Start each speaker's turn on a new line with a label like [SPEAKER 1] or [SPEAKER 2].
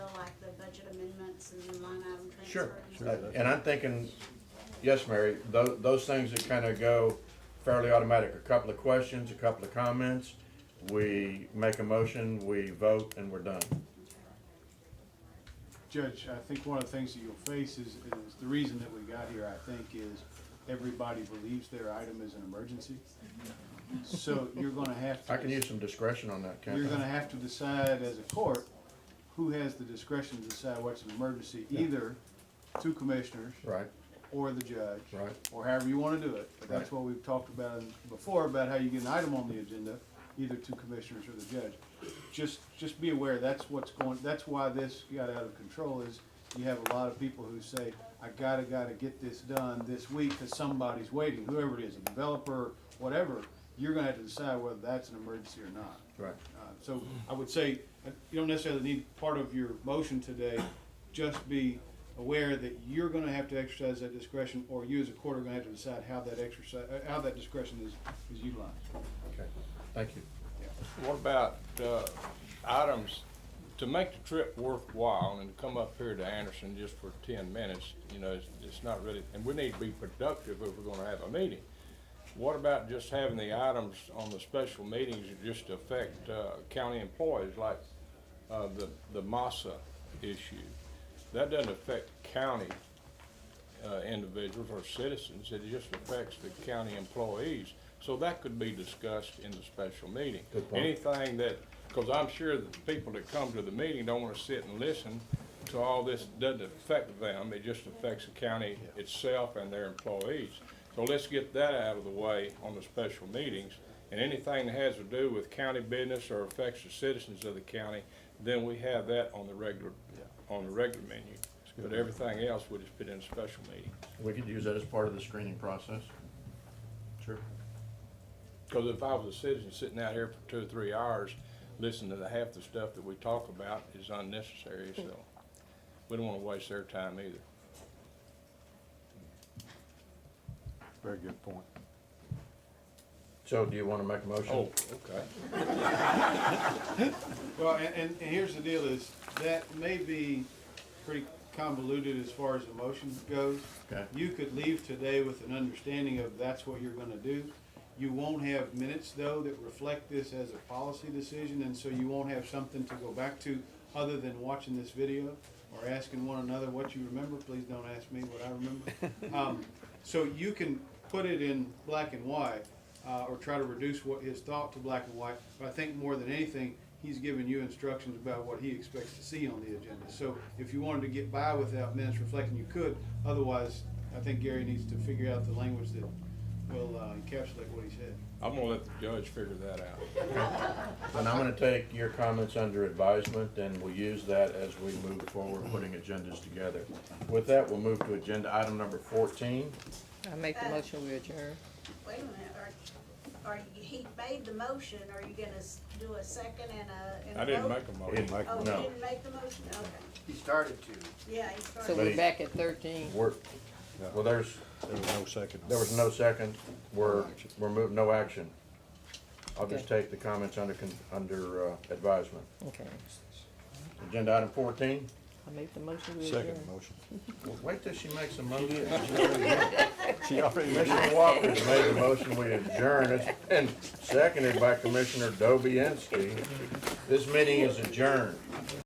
[SPEAKER 1] Sure. Uh, And I'm thinking, yes, Mary, those, those things that kind of go fairly automatic, a couple of questions, a couple of comments, we make a motion, we vote, and we're done.
[SPEAKER 2] Judge, I think one of the things that you'll face is, is the reason that we got here, I think, is everybody believes their item is an emergency. So you're gonna have to.
[SPEAKER 1] I can use some discretion on that,
[SPEAKER 2] You're
[SPEAKER 1] can't
[SPEAKER 2] gonna
[SPEAKER 1] I?
[SPEAKER 2] have to decide as a court, who has the discretion to decide what's an emergency, either two commissioners
[SPEAKER 1] Right,
[SPEAKER 2] or the judge.
[SPEAKER 1] Right.
[SPEAKER 2] Or however you wanna do it. But that's
[SPEAKER 1] Right.
[SPEAKER 2] what we've talked about in- before, about how you get an item on the agenda, either two commissioners or the judge. Just, just be aware, that's what's going, that's why this got out of control, is you have a lot of people who say, I gotta, gotta get this done this week, cause somebody's waiting, whoever it is, a developer, whatever. You're gonna have to decide whether that's an emergency or not.
[SPEAKER 1] right.
[SPEAKER 2] Uh, So I would say, uh, you don't necessarily need part of your motion today, just be aware that you're gonna have to exercise that discretion, or you as a court are gonna have to decide how that exercise, uh, how that discretion is, is utilized.
[SPEAKER 1] Okay, thank you.
[SPEAKER 3] What about, uh, items, to make the trip worthwhile and to come up here to Anderson just for ten minutes, you know, it's, it's not really, and we need to be productive if we're gonna have a meeting. What about just having the items on the special meetings that just affect, uh, county employees, like, uh, the, the massa issue? That doesn't affect county, uh, individuals or citizens, it just affects the county employees. So that could be discussed in the special meeting.
[SPEAKER 1] Good point.
[SPEAKER 3] Anything that, because I'm sure that the people that come to the meeting don't want to sit and listen to all this, doesn't affect them, it just affects the county itself and their employees. So let's get that out of the way on the special meetings, and anything that has to do with county business or affects the citizens of the county, then we have that on the regular, on the regular menu. But everything else, we just put in a special meeting.
[SPEAKER 1] We could use that as part of the screening process. Sure.
[SPEAKER 3] Because if I was a citizen sitting out here for two or three hours, listening to the half the stuff that we talk about is unnecessary, so we don't want to waste their time either.
[SPEAKER 4] Very good point.
[SPEAKER 1] So do you want to make a motion?
[SPEAKER 3] Oh, okay.
[SPEAKER 2] Well, and, and, and here's the deal is, that may be pretty convoluted as far as the motion goes.
[SPEAKER 1] Okay.
[SPEAKER 2] You could leave today with an understanding of that's what you're gonna do. You won't have minutes though that reflect this as a policy decision, and so you won't have something to go back to other than watching this video or asking one another what you remember. Please don't ask me what I remember. Um, so you can put it in black and white, uh, or try to reduce what his thought to black and white. But I think more than anything, he's giving you instructions about what he expects to see on the agenda. So if you wanted to get by without minutes reflecting, you could. Otherwise, I think Gary needs to figure out the language that will uh, encapsulate what he said.
[SPEAKER 3] I'm gonna let the judge figure that out.
[SPEAKER 1] And I'm gonna take your comments under advisement, and we'll use that as we move forward, putting agendas together. With that, we'll move to agenda item number fourteen.
[SPEAKER 5] I make the motion we adjourn.
[SPEAKER 6] Wait a minute, are, are, you- he made the motion, are you gonna s- do a second and a, and a
[SPEAKER 3] I didn't
[SPEAKER 6] vote?
[SPEAKER 3] make a motion.
[SPEAKER 1] It-
[SPEAKER 6] Oh, you
[SPEAKER 1] No.
[SPEAKER 6] didn't make the motion, okay,
[SPEAKER 7] He started to.
[SPEAKER 6] yeah, he
[SPEAKER 5] So
[SPEAKER 6] started.
[SPEAKER 1] But
[SPEAKER 5] we're
[SPEAKER 1] he-
[SPEAKER 5] back at thirteen.
[SPEAKER 1] We're, well, there's,
[SPEAKER 4] There was no second.
[SPEAKER 1] there was no second, we're, we're moving, no action. I'll just take the comments under, con- under uh, advisement.
[SPEAKER 5] Okay.
[SPEAKER 1] Agenda item fourteen,
[SPEAKER 5] I make the motion we adjourn.
[SPEAKER 4] Second motion.
[SPEAKER 1] Well, wait till she makes a motion.
[SPEAKER 4] She already
[SPEAKER 1] Commissioner Walker's made the motion, we adjourn, it's been seconded by Commissioner Dobianski. This meeting is adjourned.